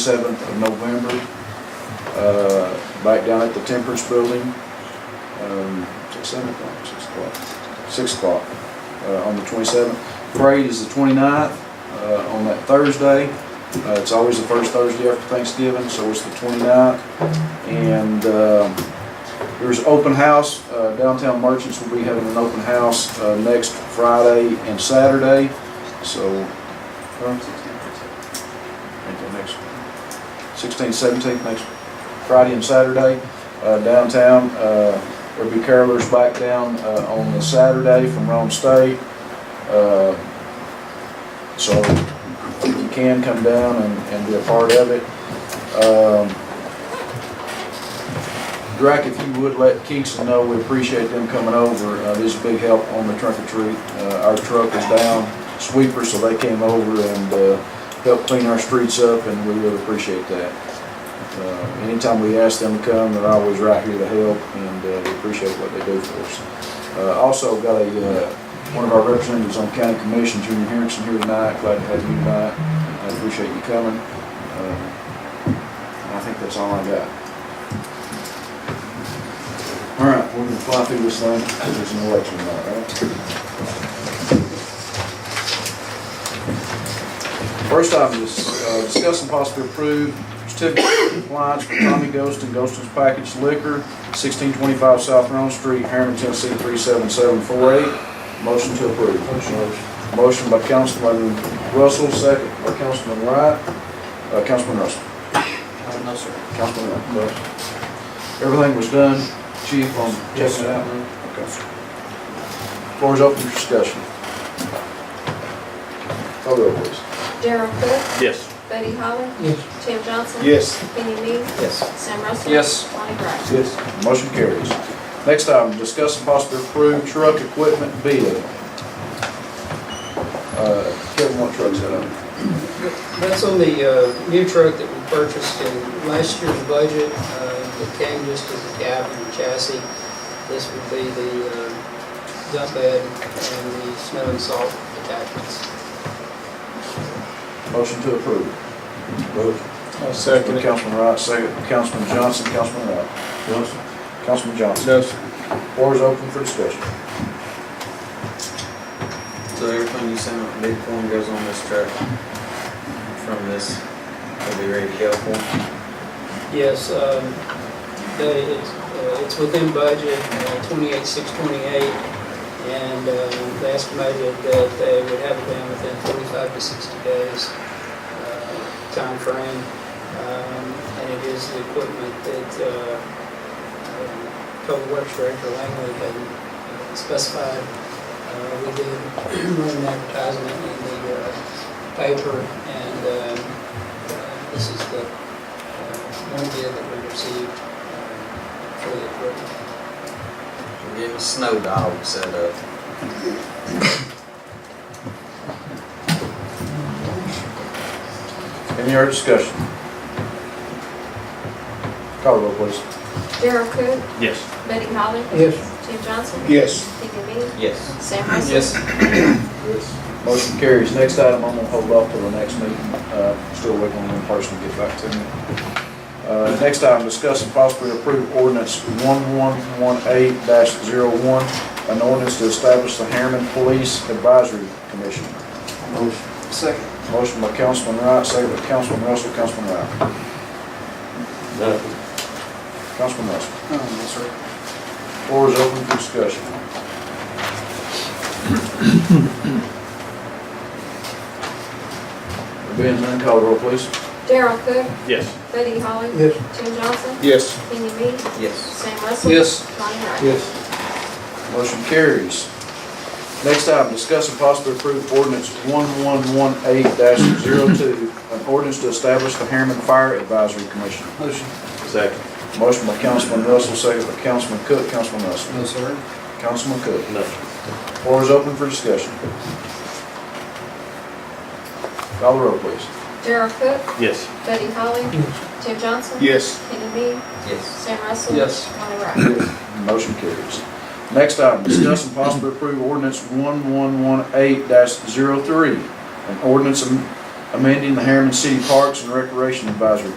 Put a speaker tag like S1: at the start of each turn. S1: 27th of November, uh, back down at the Temperance Building, um, is it 7 o'clock, 6 o'clock, 6 o'clock uh, on the 27th. Parade is the 29th uh, on that Thursday. Uh, It's always the first Thursday after Thanksgiving, so it's the 29th. And um, there's open house, uh, downtown merchants will be having an open house uh, next Friday and Saturday, so. Until next 16th, 17th, next Friday and Saturday, uh, downtown. Uh, There'll be carolers back down uh, on the Saturday from Rome State. Uh, So if you can, come down and and be a part of it. Um, Drac, if you would let Kingston know, we appreciate them coming over. Uh, This is a big help on the trunk or treat. Uh, Our truck is down, sweeper, so they came over and uh, helped clean our streets up, and we really appreciate that. Uh, Anytime we ask them to come, they're always right here to help, and uh, we appreciate what they do for us. Uh, Also, got a, uh, one of our representatives on county commission, Junior Harrison, here tonight. Glad to have you tonight. I appreciate you coming. Uh, I think that's all I got. All right, we're gonna fly through this thing, because there's an election night, right? First item is uh, discuss and possibly approve certificate of compliance for Tommy Ghost and Ghost's Package Liquor, 1625 South Rome Street, Harriman, Tennessee 37748. Motion to approve. Motion. Motion by Councilman Russell, second by Councilman Wright. Uh, Councilman Russell.
S2: Uh, No, sir.
S1: Councilman Russell. Everything was done, chief, on
S2: Yes,
S1: checking it
S2: sir.
S1: out? Okay. Floor is open for discussion. Call the roll, please.
S3: Darryl Cook,
S4: Yes.
S3: Buddy Holly,
S2: Yes.
S3: Tim Johnson.
S1: Yes.
S3: Kenny Me,
S2: Yes.
S3: Sam Russell.
S2: Yes.
S3: Lonnie Wright.
S1: Yes. Motion carries. Next item, discuss and possibly approve truck equipment bid. Uh, Kevin, what truck's that on?
S2: That's on the uh, new truck that we purchased in last year's budget. uh, It came just as a cab and chassis. This would be the uh, dump bed and the snow and salt attachments.
S1: Motion to approve.
S5: Second.
S1: Councilman Wright, second. Councilman Johnson, Councilman Wright. Councilman Johnson.
S5: No, sir.
S1: Floor is open for discussion.
S6: So everything you send out bid form goes on this truck from this, it'll be ready to go for.
S2: Yes, um, they, it's, uh, it's within budget, uh, 28,628. And uh, they estimated that they would have it down within 45 to 60 days uh, timeframe. Um, And it is the equipment that uh, um, Public Works Director Langley had uh, specified. Uh, We did run an advertisement in the uh, paper, and um, uh, this is the uh, one bid that we received uh, for the equipment.
S6: We're getting a snow uh, dog set up.
S1: Any other discussion? Call the roll, please.
S3: Darryl Cook,
S4: Yes.
S3: Buddy Holly,
S2: Yes.
S3: Tim Johnson.
S5: Yes.
S3: Kenny Me,
S6: Yes.
S3: Sam Russell.
S1: Motion carries. Next item, I'm gonna hold off till the next meeting. Uh, Still waiting on one person to get back to me. Uh, Next item, discuss and possibly approve ordinance 1118-01, an ordinance to establish the Harriman Police Advisory Commission.
S2: Second.
S1: Motion by Councilman Wright, second by Councilman Russell, Councilman Wright.
S4: Nothing.
S1: Councilman Russell.
S2: Um, Yes, sir.
S1: Floor is open for discussion. There being none, call the roll, please.
S3: Darryl Cook,
S4: Yes.
S3: Buddy Holly.
S2: Yes.
S3: Tim Johnson.
S5: Yes.
S3: Kenny Me,
S6: Yes.
S3: Sam Russell.
S2: Yes.
S3: Lonnie Wright.
S5: Yes.
S1: Motion carries. Next item, discuss and possibly approve ordinance 1118-02, an ordinance to establish the Harriman Fire Advisory Commission.
S2: Motion.
S4: Second.
S1: Motion by Councilman Russell, second by Councilman Cook, Councilman Russell.
S2: No, sir.
S1: Councilman Cook.
S4: Nothing.
S1: Floor is open for discussion. Call the roll, please.
S3: Darryl Cook,
S4: Yes.
S3: Buddy Holly, Tim Johnson.
S5: Yes.
S3: Kenny Me,
S6: Yes.
S3: Sam Russell.
S2: Yes.
S3: Lonnie Wright.
S1: Motion carries. Next item, discuss and possibly approve ordinance 1118-03, an ordinance am- amending the Harriman City Parks and Recreation Advisory